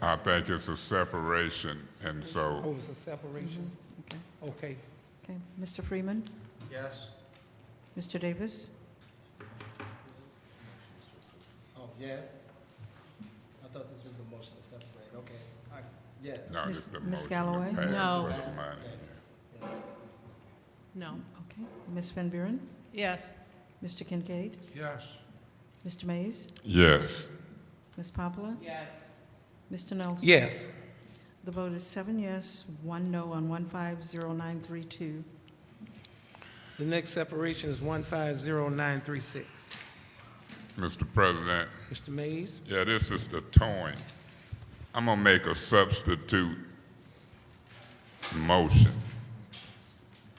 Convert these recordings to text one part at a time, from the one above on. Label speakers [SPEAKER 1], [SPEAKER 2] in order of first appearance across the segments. [SPEAKER 1] I think it's a separation, and so,
[SPEAKER 2] Oh, it's a separation? Okay.
[SPEAKER 3] Mm-hmm. Okay, Mr. Freeman?
[SPEAKER 4] Yes.
[SPEAKER 3] Mr. Davis?
[SPEAKER 4] Oh, yes? I thought this was the motion to separate, okay. I- Yes.
[SPEAKER 1] no,
[SPEAKER 3] Miss-
[SPEAKER 1] it's the motion.
[SPEAKER 3] Miss
[SPEAKER 1] to
[SPEAKER 3] Galloway?
[SPEAKER 1] pass
[SPEAKER 5] No.
[SPEAKER 1] with the money, yeah.
[SPEAKER 5] No.
[SPEAKER 3] Okay, Ms. Van Buren?
[SPEAKER 5] Yes.
[SPEAKER 3] Mr. Kincaid?
[SPEAKER 2] Yes.
[SPEAKER 3] Mr. Mays?
[SPEAKER 1] Yes,
[SPEAKER 3] Ms. Poplar?
[SPEAKER 5] Yes.
[SPEAKER 3] Mr. Nelson?
[SPEAKER 2] Yes.
[SPEAKER 3] The vote is seven yes, one no on 150932.
[SPEAKER 2] The next separation is 150936.
[SPEAKER 1] Mr. President,
[SPEAKER 2] Mr. Mays?
[SPEAKER 1] yeah, this is the towing. I'm gonna make a substitute motion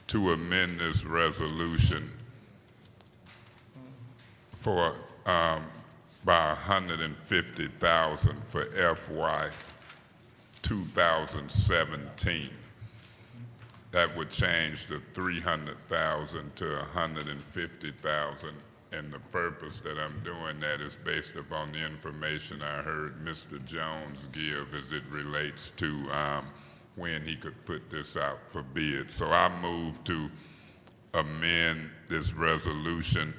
[SPEAKER 1] to amend this resolution for, um, by a hundred and fifty thousand for FY two thousand seventeen. That would change the three hundred thousand to a hundred and fifty thousand. And the purpose that I'm doing that is based upon the information I heard Mr. Jones give as it relates to, um, when he could put this out for bid. So I move to amend this resolution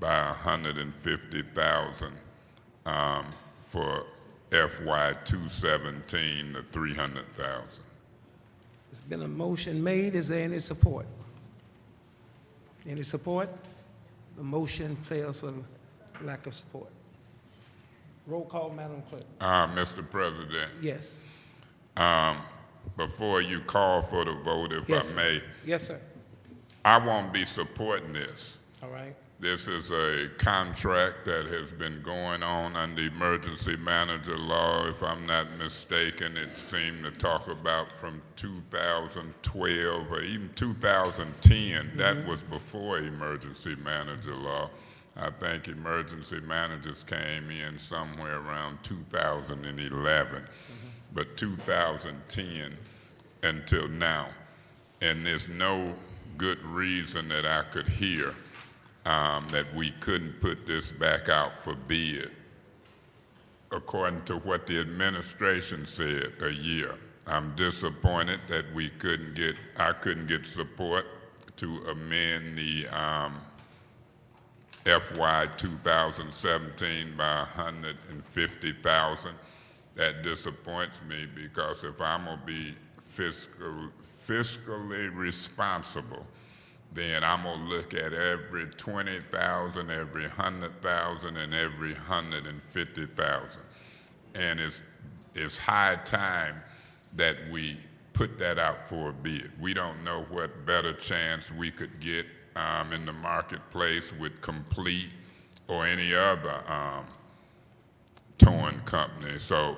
[SPEAKER 1] by hundred and fifty thousand, um, for FY two seventeen to three hundred thousand.
[SPEAKER 2] There's been a motion made. Is there any support? Any support? The motion fails for lack of support. Roll call, Madam Clerk.
[SPEAKER 1] Uh, Mr. President,
[SPEAKER 2] Yes.
[SPEAKER 1] before you call for the vote, if
[SPEAKER 2] Yes,
[SPEAKER 1] I
[SPEAKER 2] sir.
[SPEAKER 1] may,
[SPEAKER 2] Yes, sir.
[SPEAKER 1] I won't be supporting this.
[SPEAKER 2] All right.
[SPEAKER 1] This is a contract that has been going on under emergency manager law, if I'm not mistaken. It seemed to talk about from 2012 or even 2010. That was before emergency manager law. I think emergency managers came in somewhere around 2011, but 2010 until now. And there's no good reason that I could hear um, that we couldn't put this back out for bid, according to what the administration said a year. I'm disappointed that we couldn't get, I couldn't get support to amend the um, FY 2017 by 150,000. That disappoints me because if I'm gonna be fiscal, fiscally responsible, then I'm gonna look at every 20,000, every 100,000, and every 150,000. And it's, it's high time that we put that out for a bid. We don't know what better chance we could get um, in the marketplace with Complete or any other um, towing company. So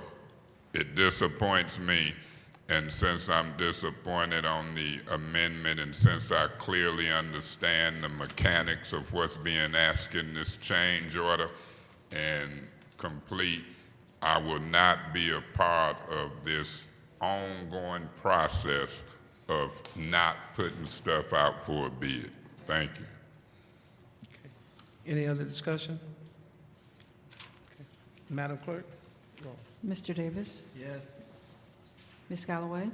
[SPEAKER 1] it disappoints me. And since I'm disappointed on the amendment, and since I clearly understand the mechanics of what's being asked in this change order and complete, I will not be a part of this ongoing process of not putting stuff out for a bid. Thank you.
[SPEAKER 2] Any other discussion? Okay. Madam Clerk? Roll.
[SPEAKER 3] Mr. Davis?
[SPEAKER 4] Yes.
[SPEAKER 3] Ms. Galloway?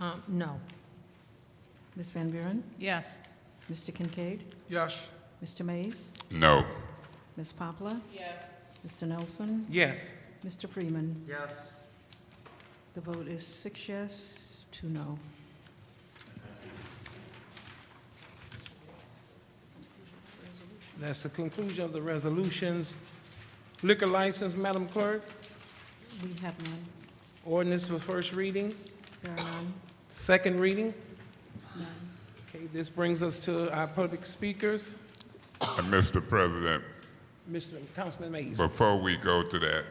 [SPEAKER 5] Um, no.
[SPEAKER 3] Ms. Van Buren?
[SPEAKER 5] Yes.
[SPEAKER 3] Mr. Kincaid?
[SPEAKER 2] Yes.
[SPEAKER 3] Mr. Mays?
[SPEAKER 1] No.
[SPEAKER 3] Ms. Poplar?
[SPEAKER 5] Yes.
[SPEAKER 3] Mr. Nelson?
[SPEAKER 2] Yes.
[SPEAKER 3] Mr. Freeman?
[SPEAKER 4] Yes.
[SPEAKER 3] The vote is six yes, two no.
[SPEAKER 2] That's the conclusion of the resolutions. Liquor license, Madam Clerk,
[SPEAKER 3] We have none.
[SPEAKER 2] ordinance for first reading,
[SPEAKER 3] There are none.
[SPEAKER 2] second reading. Okay, this brings us to our public speakers.
[SPEAKER 1] And Mr. President,
[SPEAKER 2] Mr. Councilman Mays.
[SPEAKER 1] Before we go to that,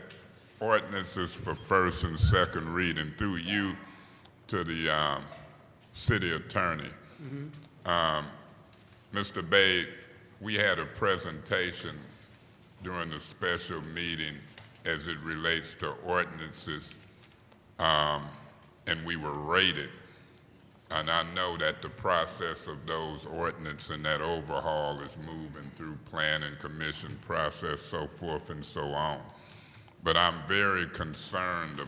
[SPEAKER 1] ordinances for first and second reading through you to the um, city attorney. Um, Mr. Bade, we had a presentation during the special meeting as it relates to ordinances, um, and we were rated. And I know that the process of those ordinance and that overhaul is moving through planning commission process, so forth and so on. But I'm very concerned